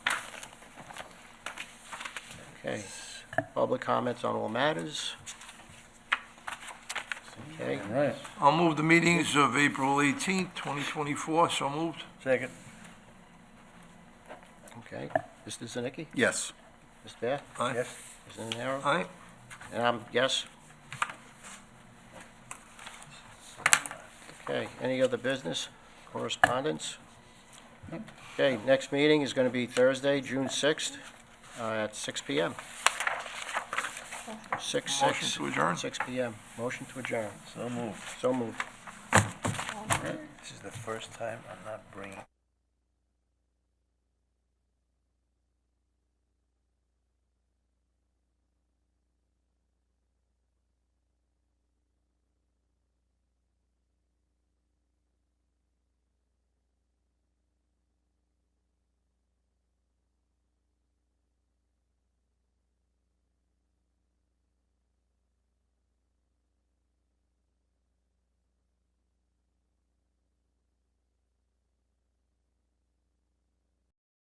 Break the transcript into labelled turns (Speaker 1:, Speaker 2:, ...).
Speaker 1: Okay, public comments on all matters. Okay,
Speaker 2: All right.
Speaker 3: I'll move the meetings of April 18th, 2024, so moved.
Speaker 2: Second.
Speaker 1: okay. Mr. Zanicki?
Speaker 4: Yes.
Speaker 1: Mr. Bath?
Speaker 3: Aye.
Speaker 1: Mr. Nenaro?
Speaker 3: Aye.
Speaker 1: And I'm, yes. Okay, any other business, correspondence? Okay, next meeting is gonna be Thursday, June sixth, uh, at six P M. Six,
Speaker 3: Motion
Speaker 1: six,
Speaker 3: to adjourn.
Speaker 1: six P M. Motion to adjourn.
Speaker 2: So moved.
Speaker 1: So moved.
Speaker 2: This is the first time I'm not bringing